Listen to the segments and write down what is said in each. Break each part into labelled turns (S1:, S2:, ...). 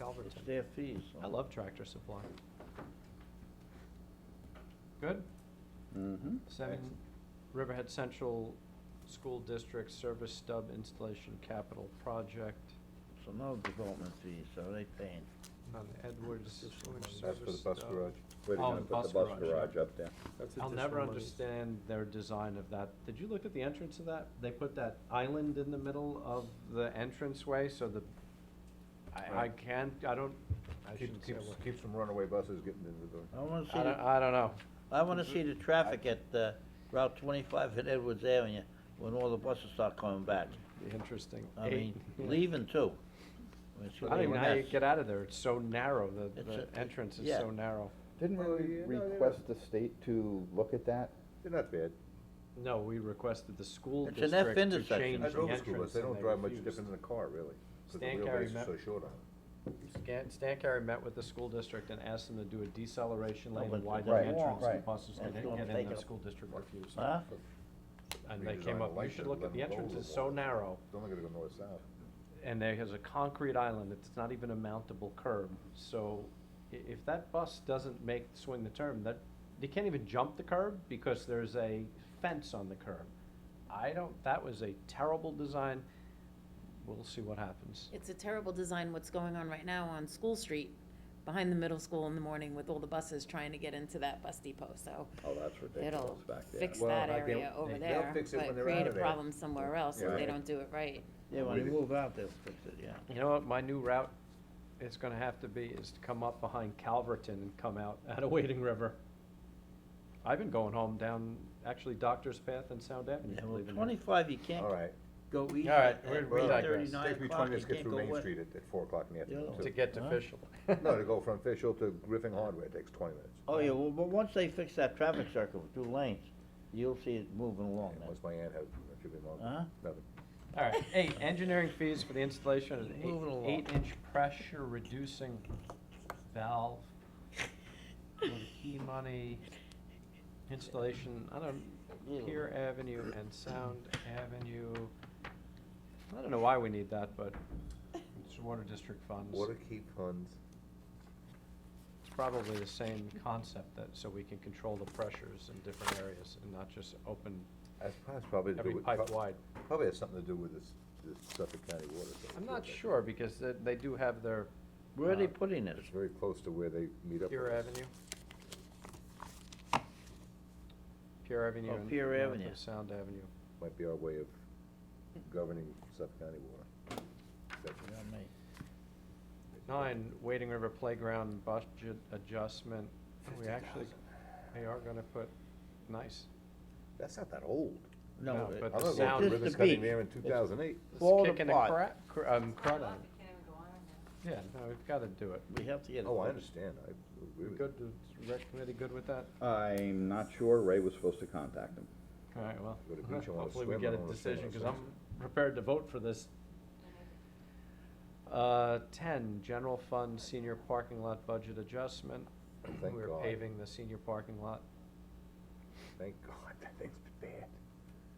S1: Alberton.
S2: It's their fees. so-
S1: I love Tractor Supply. Good?
S3: Mm-hmm.
S2: Mhm.
S1: Seven, Riverhead Central School District Service Stub Installation Capital Project.
S2: So no development fees, so they paying.
S1: On the Edwards Sewage
S4: That's for
S1: Service
S4: the bus
S1: Stub.
S4: garage.
S1: Oh,
S3: Where they're gonna
S1: the
S3: put
S1: bus
S3: the bus
S1: garage, yeah.
S3: garage up there.
S4: That's
S1: I'll never
S4: additional monies.
S1: understand their design of that. Did you look at the entrance of that? They put that island in the middle of the entranceway so the, I, I
S3: Right.
S1: can't, I don't, I
S3: Keep-
S1: shouldn't say a
S3: Keeps,
S1: word.
S3: keeps some runaway buses getting into the,
S2: I wanna see,
S1: I don't,
S2: the-
S1: I don't know.
S2: I wanna see the traffic at uh, Route twenty-five at Edwards Avenue when all the buses start coming back.
S1: Be interesting.
S2: I
S1: Eight,
S2: mean,
S1: yeah.
S2: leaving too. I mean, it's
S1: I
S2: gonna
S1: don't
S2: be a
S1: even know how you
S2: mess.
S1: get out of there. It's so narrow. The,
S2: It's
S1: the
S2: a-
S1: entrance is
S2: yeah.
S1: so narrow.
S5: Didn't
S6: Oh,
S4: Well,
S5: we
S4: you know, they
S5: request the state to look at that?
S3: they're not bad.
S1: No, we requested the school
S2: It's
S1: district
S2: an
S1: to
S2: F
S1: change the
S2: intersection.
S1: entrance
S3: I drove a school bus, they
S1: and
S3: don't
S1: they
S3: drive much
S1: refused.
S3: different than a car, really, because the
S1: Stan Carey
S3: wheelbase
S1: met-
S3: is so short on it.
S1: Stan, Stan Carey met with the school district and asked them to do a deceleration
S2: No,
S1: lane
S2: but
S1: and widen
S2: right,
S1: the entrance so
S2: right.
S1: buses
S2: That's
S1: could
S2: gonna
S1: get
S2: take
S1: in. The
S2: up-
S1: school district refused.
S2: Huh?
S1: And they
S3: Redesign
S1: came
S3: the
S1: up, you
S3: light
S1: should
S3: to
S1: look at,
S3: let
S1: the
S3: them go a
S1: entrance
S3: little
S1: is so
S3: more.
S1: narrow
S3: It's only gonna go north-south.
S1: and there is a concrete island. It's not even a mountable curb. So i- if that bus doesn't make, swing the turn, that, they can't even jump the curb because there's a fence on the curb. I don't, that was a terrible design. We'll see what happens.
S6: It's a terrible design, what's going on right now on School Street, behind the middle school in the morning with all the buses trying to get into that bus depot, so
S3: Oh, that's ridiculous
S6: it'll
S3: back there.
S6: fix
S4: Well,
S6: that
S4: I
S6: area
S4: guess
S6: over
S1: they'll
S6: there,
S3: fix it when
S6: but
S3: they're
S6: create
S3: outta
S6: a
S3: there.
S6: problem somewhere else if
S3: Right.
S6: they don't do it right.
S2: Yeah, when
S3: Really?
S2: they move out, they'll fix it, yeah.
S1: You know what, my new route is gonna have to be, is to come up behind Calverton and come out out of Wading River. I've been going home down, actually Doctor's Path and Sound Avenue,
S2: Yeah, well,
S1: believe it or not.
S2: twenty-five, you can't
S3: All right.
S2: go east
S1: All right,
S2: at
S1: we're- we
S3: Well,
S1: digress.
S2: thirty nine
S3: Takes me
S2: o'clock,
S3: twenty
S2: you
S3: minutes to get
S2: can't
S3: through
S2: go
S3: Main
S2: west.
S3: Street at, at four o'clock in the afternoon,
S2: Yeah.
S1: To
S3: too.
S1: get to
S2: Huh?
S1: Fishel.
S3: No, to go from Fishel to Griffin Hardware takes twenty minutes.
S2: Oh, yeah, well, but once they fix that traffic circle with two lanes, you'll see it moving along
S3: And
S2: then.
S3: What's my aunt have, it should be long,
S2: Huh?
S3: nothing.
S1: All right, eight, engineering fees for the installation of
S2: Moving
S1: an
S2: along.
S1: eight, inch pressure reducing valve. with Key money, installation, I don't, Pier Avenue and Sound Avenue. I don't know why we need that, but it's water district funds.
S3: Water key funds,
S1: It's probably the same concept that, so we can control the pressures in different areas and not just open
S3: that's probably- that's probably to do
S1: every
S3: with.
S1: pipe wide.
S3: Probably has something to do with this, this Suffolk County water. thing.
S1: I'm not sure because they, they do have their
S2: Where are they
S1: Uh,
S2: putting this?
S3: It's very close to where they meet up.
S1: Pier
S3: with us.
S1: Avenue. Pier Avenue
S2: Oh,
S1: and
S2: Pier
S1: north
S2: Avenue.
S1: of Sound Avenue.
S3: Might be our way of governing Suffolk County water.
S2: You know me.
S1: Nine, Wading River Playground budget adjustment. We actually, they are gonna put, nice.
S3: That's not that old.
S1: No,
S2: No,
S1: but
S2: it-
S1: the
S3: I
S1: sound-
S3: was going to
S2: Just
S3: ribbon
S2: the
S3: cutting
S2: beach.
S3: there in two thousand eight.
S1: It's
S2: Falling
S1: kicking a
S2: apart.
S1: cra- cr- um, crud on it.
S7: Can't even go on in there.
S1: Yeah, no, we've gotta do it.
S2: we have to get it.
S3: Oh, I
S2: fixed.
S3: understand, I agree with you.
S1: Good, the rec committee good with that?
S5: I'm not sure, Ray was supposed to contact him.
S1: All right, well,
S3: Go to the beach, I wanna
S1: hopefully we
S3: swim, I
S1: get a
S3: wanna swim, I
S1: decision, cause
S3: wanna
S1: I'm prepared to vote for this. Uh, ten, general fund senior parking lot budget adjustment.
S3: Thank
S1: We're
S3: God.
S1: paving the senior parking lot,
S3: Thank God, that thing's bad.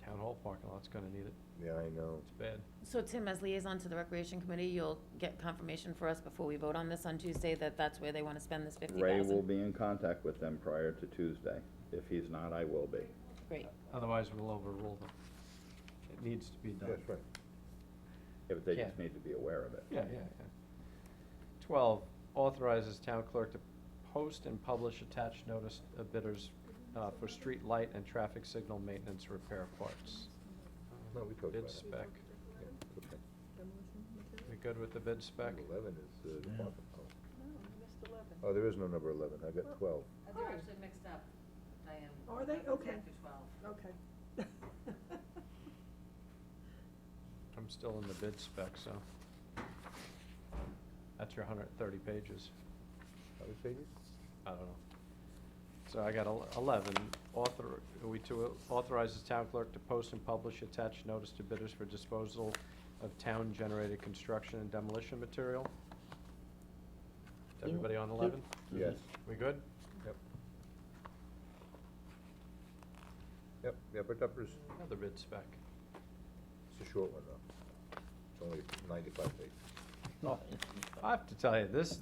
S1: town hall parking lot's gonna need it,
S3: Yeah, I know.
S1: it's bad.
S6: So Tim, as liaison to the Recreation Committee, you'll get confirmation for us before we vote on this on Tuesday that that's where they wanna spend this fifty
S5: Ray will
S6: thousand?
S5: be in contact with them prior to Tuesday. If he's not, I will be.
S6: Great,
S1: Otherwise, we'll overrule them. It needs to be done.
S3: That's right.
S5: If they just
S1: Yeah.
S5: need to be aware of it.
S1: Yeah, yeah, yeah. Twelve, authorizes town clerk to post and publish attached notice of bidders, uh, for street light and traffic signal maintenance repair parts.
S3: No, we talked about
S1: Bid
S3: that.
S1: spec,
S3: Yeah, okay.
S1: we good with the bid spec?
S3: Number Eleven is, uh,
S2: Yeah.
S3: department,
S7: No, we missed eleven.
S3: oh. oh, there is no number eleven, I got twelve.
S7: Uh,
S8: Oh.
S7: They're actually mixed up, Diane.
S8: Are they?
S7: Eleven, ten
S8: Okay.
S7: through twelve.
S8: Okay.
S1: I'm still in the bid spec, so. That's your hundred and thirty pages.
S3: How many pages?
S1: I don't know. So I got el- eleven, author, are we to authorize the town clerk to post and publish attached notice to bidders for disposal of town-generated construction and demolition material? Is everybody on eleven?
S3: Yes.
S1: We good?
S3: Yep. Yep, yeah, but numbers,
S1: Another bid spec.
S3: it's a short one though. It's only ninety-five pages.
S2: No.
S1: I have to tell you, this,